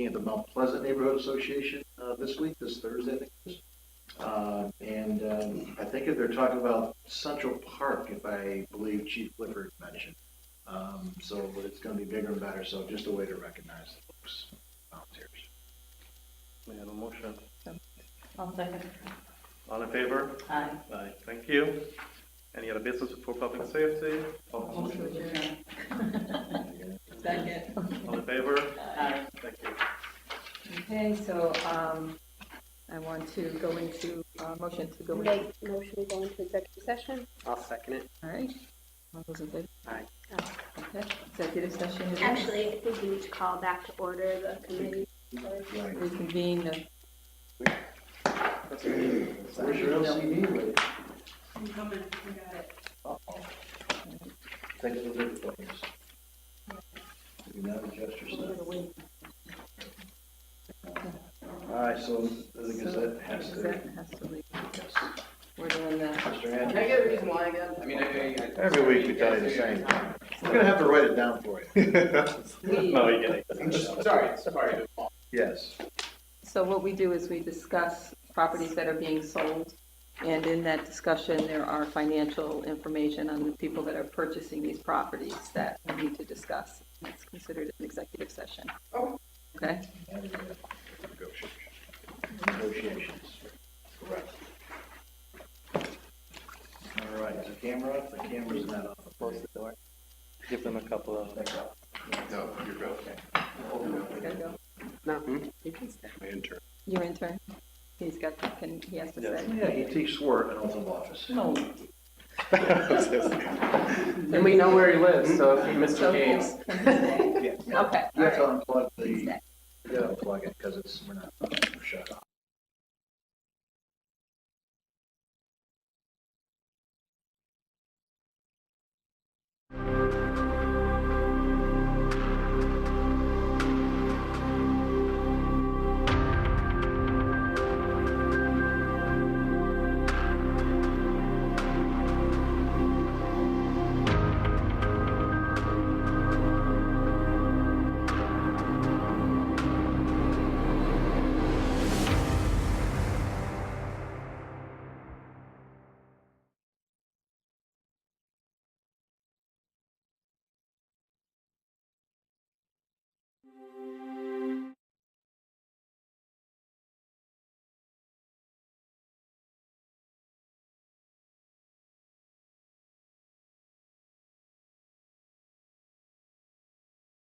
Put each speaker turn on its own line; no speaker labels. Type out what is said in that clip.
at the Mount Pleasant Neighborhood Association uh, this week, this Thursday, I think it is. Uh, And um, I think they're talking about Central Park, if I believe Chief Clifford mentioned. Um, So it's going to be bigger and better, so just a way to recognize the folks, volunteers.
May I have a motion?
I'll second.
All in favor?
Aye.
Aye. Thank you. Any other business for public safety? All
Motion to adjourn. Second.
all in favor?
Aye.
Thank you.
Okay, so um, I want to go into, uh, motion to go into,
Make motion to go into executive session.
I'll second it.
all right? All those in favor?
Aye.
Okay, executive session is.
Actually, I think we need to call back to order the committee.
Right.
Reconvene the.
Where's your LCD? lady?
I'm coming, you got it.
Thanks for the photos. You can now adjust yourself. All right, so the Gazette has to,
Gazette has to leave.
yes.
We're doing that.
Mr.
Can I get a
Andrews.
reason why again?
I mean, I, I.
Every week we tell you the same. We're gonna have to write it down for you.
We-
No, you get it.
Sorry, sorry.
Yes.
So what we do is we discuss properties that are being sold. And in that discussion, there are financial information on the people that are purchasing these properties that we need to discuss. It's considered an executive session. Okay?
Negotiations. Correct. All right, is the camera up? The camera's not on.
Close the door. Give them a couple of.
No, you're good.
Gotta go.
No. You can stay.
Your intern, he's got, can, he has to say.
Yeah, he takes work in oath of office.
No.
And we know where he lives, so if you miss the
So
games.
can he stay?
Yeah, yeah.
Okay,
You have to
all
unplug the,
He's
you
dead.
gotta unplug it, because it's, we're not.